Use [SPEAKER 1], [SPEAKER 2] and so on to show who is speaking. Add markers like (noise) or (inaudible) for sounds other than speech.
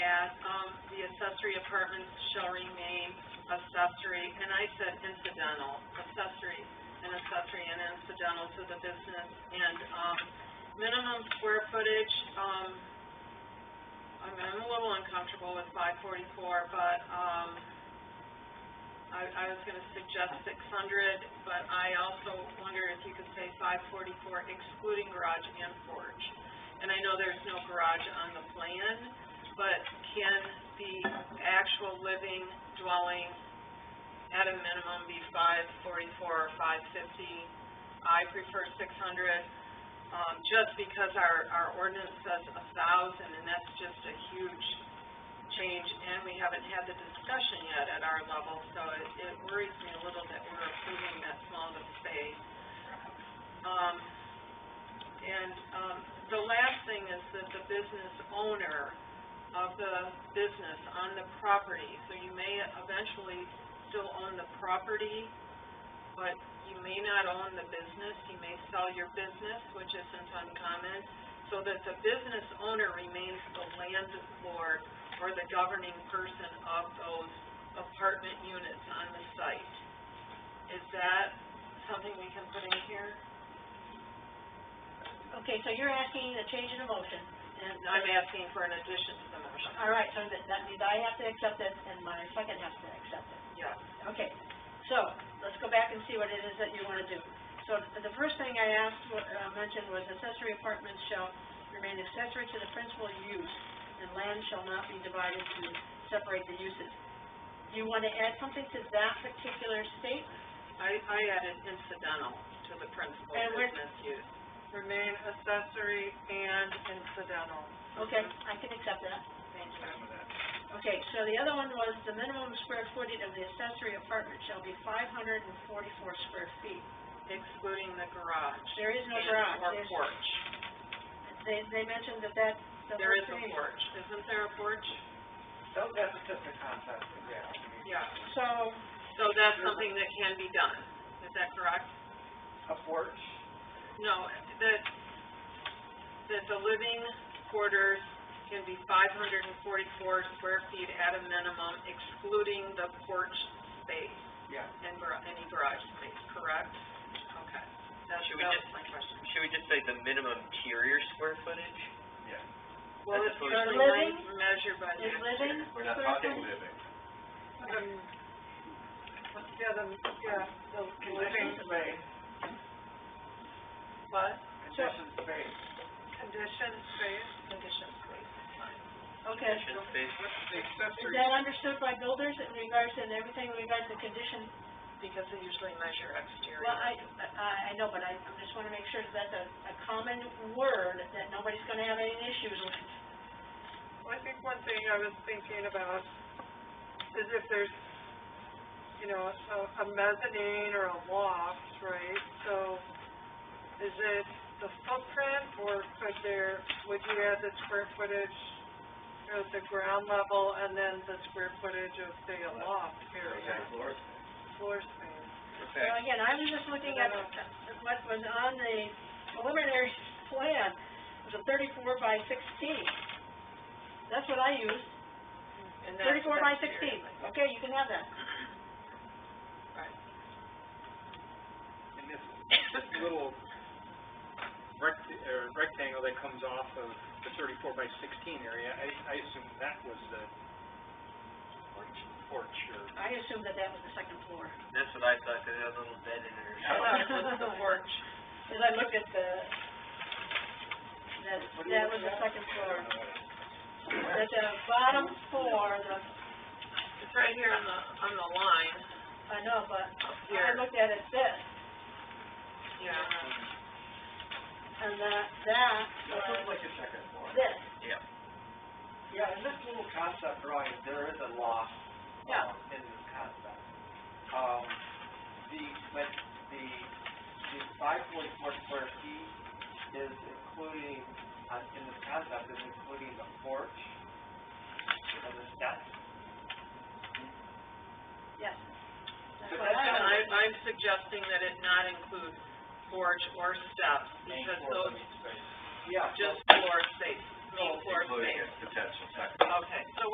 [SPEAKER 1] um, apartments shall remain accessory, and I said incidental, accessory, and accessory and incidental to the business, and, um, minimum square footage, um, I mean, I'm a little uncomfortable with five forty-four, but, um, I, I was gonna suggest six hundred, but I also wonder if you could say five forty-four excluding garage and porch. And I know there's no garage on the plan, but can the actual living dwelling at a minimum be five forty-four or five fifty? I prefer six hundred, um, just because our, our ordinance says a thousand, and that's just a huge change, and we haven't had the discussion yet at our level, so it, it worries me a little that we're approving that small of a space. Um, and, um, the last thing is that the business owner of the business on the property, so you may eventually still own the property, but you may not own the business, you may sell your business, which isn't uncommon, so that the business owner remains the landlord or the governing person of those apartment units on the site. Is that something we can put in here?
[SPEAKER 2] Okay, so you're asking a change in the motion, and
[SPEAKER 1] And I'm asking for an addition to the motion.
[SPEAKER 2] all right, so that, that means I have to accept it, and my second has to accept it.
[SPEAKER 1] Yes.
[SPEAKER 2] Okay, so, let's go back and see what it is that you wanna do. So, the first thing I asked, wa- uh, mentioned was accessory apartments shall remain accessory to the principal use, and land shall not be divided to separate the uses. Do you wanna add something to that particular statement?
[SPEAKER 1] I, I added incidental to the principal
[SPEAKER 2] And we're-
[SPEAKER 1] business use. Remain accessory and incidental.
[SPEAKER 2] Okay, I can accept that.
[SPEAKER 1] Thank you.
[SPEAKER 2] Okay, so the other one was the minimum square footage of the accessory apartment shall be five hundred and forty-four square feet.
[SPEAKER 1] Excluding the garage.
[SPEAKER 2] There is no
[SPEAKER 1] and-
[SPEAKER 2] garage.
[SPEAKER 1] Or
[SPEAKER 2] There's-
[SPEAKER 1] porch.
[SPEAKER 2] They, they mentioned that that, the
[SPEAKER 1] There
[SPEAKER 2] whole
[SPEAKER 1] is a
[SPEAKER 2] thing.
[SPEAKER 1] porch. Isn't there a porch?
[SPEAKER 3] So that's just a concept, yeah.
[SPEAKER 1] Yeah.
[SPEAKER 2] So,
[SPEAKER 1] So that's something that can be done. Is that correct?
[SPEAKER 3] A porch,
[SPEAKER 1] No, that, that the living quarters can be five hundred and forty-four square feet at a minimum, excluding the porch space
[SPEAKER 3] yeah.
[SPEAKER 1] and gar- any garage space, correct? Okay. That's,
[SPEAKER 4] Should we
[SPEAKER 1] that
[SPEAKER 4] just-
[SPEAKER 1] was my question.
[SPEAKER 4] Should we just say the minimum interior square footage?
[SPEAKER 3] Yeah.
[SPEAKER 1] Well, it's
[SPEAKER 4] That's what-
[SPEAKER 1] usually
[SPEAKER 2] Living?
[SPEAKER 1] like measured by the.
[SPEAKER 2] is living
[SPEAKER 3] We're
[SPEAKER 2] square
[SPEAKER 3] not talking
[SPEAKER 2] footage?
[SPEAKER 3] living.
[SPEAKER 1] Yeah, the, yeah, the
[SPEAKER 3] space.
[SPEAKER 1] What?
[SPEAKER 3] Conditioned space.
[SPEAKER 1] Condition space? Condition space.
[SPEAKER 2] Okay.
[SPEAKER 4] Kitchen space?
[SPEAKER 3] The
[SPEAKER 2] Is
[SPEAKER 3] accessory,
[SPEAKER 2] that understood by builders in regards to everything in regards to condition?
[SPEAKER 1] Because they usually measure exterior.
[SPEAKER 2] Well, I, I, I know, but I, I just wanna make sure that's a, a common word that nobody's gonna have any issues with.
[SPEAKER 5] Well, I think one thing I was thinking about is if there's, you know, a, a mezzanine or a loft, right? So is it the footprint or could there, would you add the square footage at the ground level and then the square footage of, say, a loft
[SPEAKER 3] yeah,
[SPEAKER 5] area,
[SPEAKER 3] floor space.
[SPEAKER 5] floor space?
[SPEAKER 4] Okay.
[SPEAKER 2] Well, again, I was just looking at what was on the preliminary plan, it was a thirty-four by sixteen. That's what I used,
[SPEAKER 1] And that's
[SPEAKER 2] thirty-four by
[SPEAKER 1] exterior.
[SPEAKER 2] sixteen, okay, you can have that.
[SPEAKER 1] Right.
[SPEAKER 6] And this, this
[SPEAKER 3] (laughs)
[SPEAKER 6] little rect, uh, rectangle that comes off of the thirty-four by sixteen area, I, I assume that was the porch, porch or.
[SPEAKER 2] I assumed that that was the second floor.
[SPEAKER 4] That's what I thought, 'cause it had a little bed in it or
[SPEAKER 1] I thought
[SPEAKER 4] something.
[SPEAKER 1] it was (laughs) the porch.
[SPEAKER 2] As I looked at the, that, that was the second floor. At the bottom floor, the,
[SPEAKER 1] It's right here on the, on the line,
[SPEAKER 2] I know, but
[SPEAKER 1] up
[SPEAKER 2] I
[SPEAKER 1] here.
[SPEAKER 2] looked at it this,
[SPEAKER 1] Yeah.
[SPEAKER 2] and that, that
[SPEAKER 3] That
[SPEAKER 2] was
[SPEAKER 3] looks like a second floor.
[SPEAKER 2] this.
[SPEAKER 4] Yeah.
[SPEAKER 3] Yeah, in this little concept drawing, there is a loft,
[SPEAKER 2] Yeah.
[SPEAKER 3] um, in this concept. Um, the, but the, the five point four square feet is including, uh, in this concept, is including the porch, you know, the steps.
[SPEAKER 2] Yes. That's
[SPEAKER 3] But
[SPEAKER 2] what
[SPEAKER 1] That's
[SPEAKER 2] I
[SPEAKER 1] what
[SPEAKER 2] was-
[SPEAKER 1] I'm, I'm suggesting that it not include porch or steps,
[SPEAKER 6] main
[SPEAKER 1] because
[SPEAKER 6] floor
[SPEAKER 1] those,
[SPEAKER 6] living space.
[SPEAKER 3] Yeah, so-
[SPEAKER 1] just floor space, main floor
[SPEAKER 4] Including
[SPEAKER 1] space.
[SPEAKER 4] a potential second
[SPEAKER 1] Okay, so